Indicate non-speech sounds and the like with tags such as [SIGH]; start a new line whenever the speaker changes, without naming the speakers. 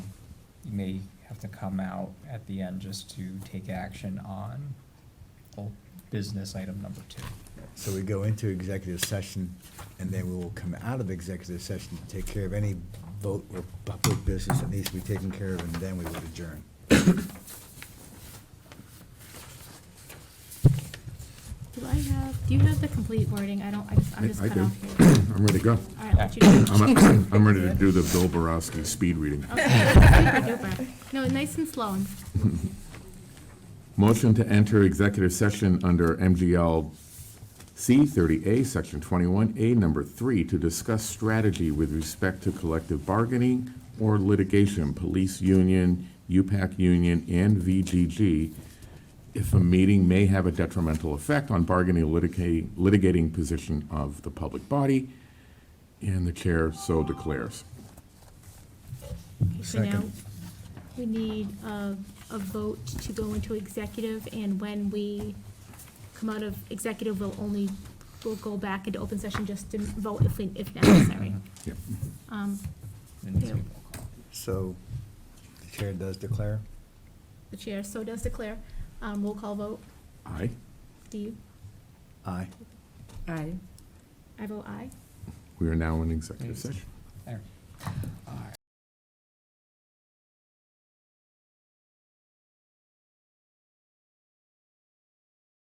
may have to come out at the end just to take action on old business item number two.
So we go into executive session, and then we will come out of executive session to take care of any vote or public business that needs to be taken care of, and then we will adjourn.
Do I have, do you have the complete wording? I don't, I just- I'm just
I I
cut
do.
off here.
[CLEARS THROAT] I'm ready to go.
All right, what you do. [LAUGHS]
[CLEARS THROAT] I'm, I'm ready to do the Bill Borowski speed reading.
Okay, super duper. No, nice and slow.
Motion to enter executive session under MGL C 30A, Section 21A, Number 3, to discuss strategy with respect to collective bargaining or litigation, police union, UPAC union, and VGG, if a meeting may have a detrimental effect on bargaining or litica- litigating position of the public body, and the chair so declares.
Okay, So now,
Second.
we need a, a vote to go into executive, and when we come out of executive, we'll only, we'll go back into open session just to vote if, we if necessary.
Yep.
Um,
And
Yeah.
So the chair does declare?
The chair so does declare. Um, roll call vote.
Aye?
Steve,
Aye.
Aye.
I vote aye.
We are now in executive session.
There.